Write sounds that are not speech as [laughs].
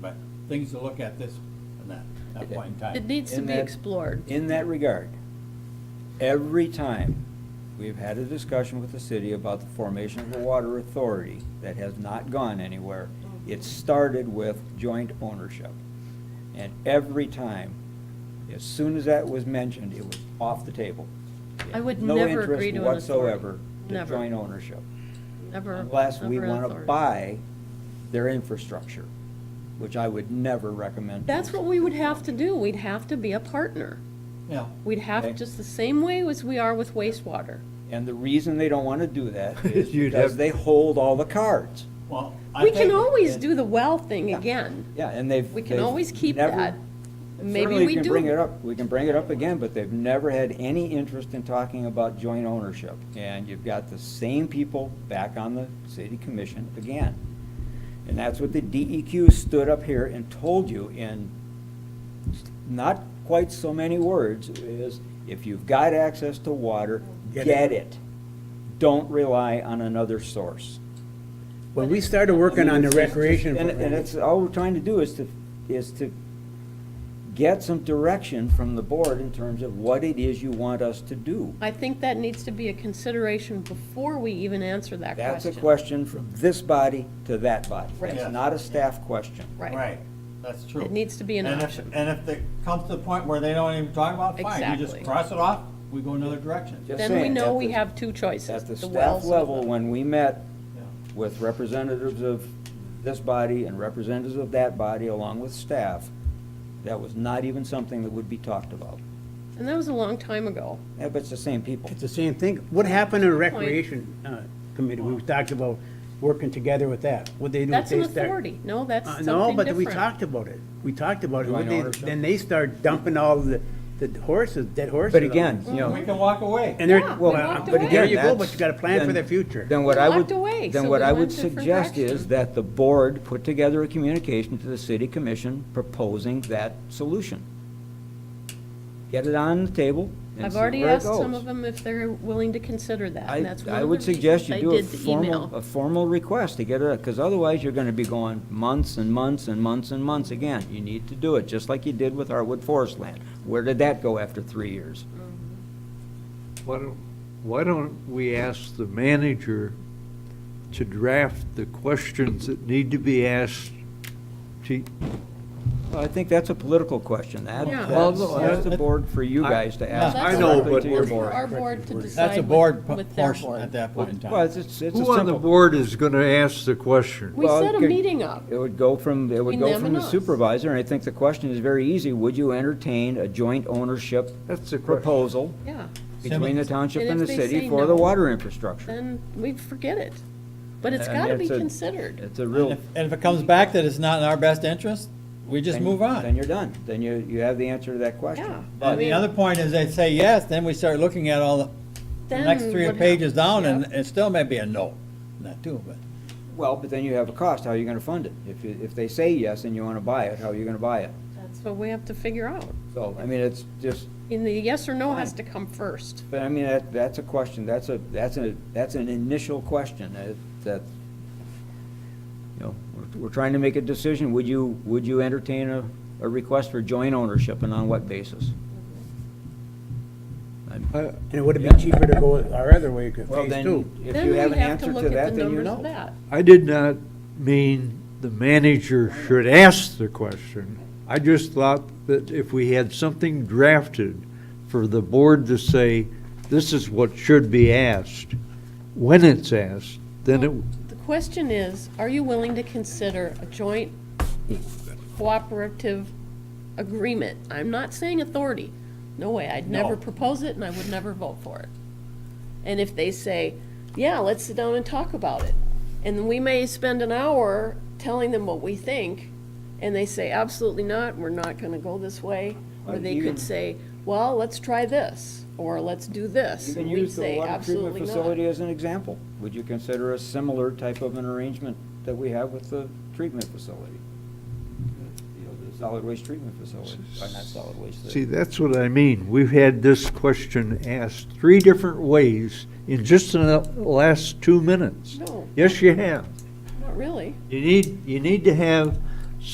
but things to look at this and that, that point in time. It needs to In be that- explored. In that regard, every time we've had a discussion with the city about the formation of a water authority that has not gone anywhere, it started with joint ownership. And every time, as soon as that was mentioned, it was off the table. I would never agree to an No authority. interest whatsoever to Never. joint ownership. Never. Unless we never want to authority. buy their infrastructure, which I would never recommend. That's what we would have to do. We'd have to be a partner. Yeah, We'd have, Okay. just the same way as we are with wastewater. And the reason they don't want to do [laughs] that is You'd because have- they hold all the cards. well, I We can think- always do the well thing Yeah. again. Yeah, and they've. We can they've always keep never- that. Maybe certainly we can do. Bring it up, we can bring it up again, but they've never had any interest in talking about joint ownership. And you've got the same people back on the city commission again. And that's what the DEQ stood up here and told you in not quite so many words is, if you've got access to water, Get get it. Don't rely on another source. When we started working on the recreation And, and program, that's, all we're trying to do is to, is to get some direction from the board in terms of what it is you want us to do. I think that needs to be a consideration before we even answer that question. That's a question from this body to that body. Right. It's not a staff question. Right. Right, that's true. It needs to be an And if- option. And if it comes to the point where they don't even talk about it, fine, you Exactly. just cross it off, we go another direction. Just Then we saying, know at we the- have two choices, At the the staff wells. and level, the- when we met Yeah. with representatives of this body and representatives of that body along with staff, that was not even something that would be talked about. And that was a long time ago. Yeah, but it's the same people. it's the same thing. What happened in recreation uh, committee? We talked about working together with that. What they do if That's an they start. authority. No, that's Uh, something No, different. but we talked about it. We talked about it. Joint What they- ownership. Then they start dumping all the, the horses, dead horses. But again, you know. We can walk away. And they're, Yeah, we well, walked but away. there you go, That's- but you gotta plan for then- the future. Then what I would, Locked away, then so what we I went would different suggest is direction. that the board put together a communication to the city commission proposing that solution. Get it on the table and I've see where already it asked some of goes. them if they're willing to consider that, and I, that's one I of would the suggest you do reasons I a did the formal, a email. formal request to get it, because otherwise you're gonna be going months and months and months and months again. You need to do it, just like you did with Artwood Forest Land. Where did that go after three years? Why don't, why don't we ask the manager to draft the questions that need to be asked to, Well, I think that's a political question. That, Yeah. that's, Well, no, that's the that- board for you I- guys to ask. I That's know, directly but to your That's for we're- board. our board to decide That's a board with- p- with their portion at board. that point in time. Well, it's, it's it's a who on the simple, board is going to ask the question? We Well, set a good- meeting up. it would go from, it would Between go them from and the us. supervisor, and I think the question is very easy. Would you entertain a joint ownership That's the question. proposal Yeah, between the township And and the if they say city for the no, water infrastructure? then we forget it. But it's And gotta be it's a- considered. It's a And real. if, and if it comes back that it's not in our best interest, we just then- move on. Then you're done. Then you, you have the answer to that Yeah. question. And the other point is they say yes, then we start looking at all the, the Then next three what pages down happens? and Yep. it still may be a no. Not too, but. Well, but then you have a cost. How are you gonna fund it? If, you- if they say yes and you wanna buy it, how are you gonna buy it? That's what we have to figure out. So, I mean, it's just, And the yes or no has to come first. But I mean, that, that's a question, that's a, that's a, that's an initial question, that, that, you know, we're, we're trying to make a decision, would you, would you entertain a, a request for joint ownership and on what basis? I'm- I- And it would've been cheaper to go our other way, cause Well, phase then, two. if Then you we have an have answer look to at that, the then you numbers of know. that. I did not mean the manager should ask the question. I just thought that if we had something drafted for the board to say, this is what should be asked, when it's asked, then it, The question is, are you willing to consider a joint cooperative agreement? I'm not saying authority. No way, I'd never No. propose it and I would never vote for it. And if they say, yeah, let's sit down and talk about it. And we may spend an hour telling them what we think, and they say, absolutely not, we're not gonna go this way. Or Well, they could even- say, well, let's try this, or let's do this. You can And we'd use the say, water treatment "Absolutely not." facility as an example, would you consider a similar type of an arrangement that we have with the treatment facility? You know, the solid waste treatment facility, or not solid waste, the- See, that's what I mean. We've had this question asked three different ways in just in the last two minutes. No. Yes, you have. Not really. You need, you need to have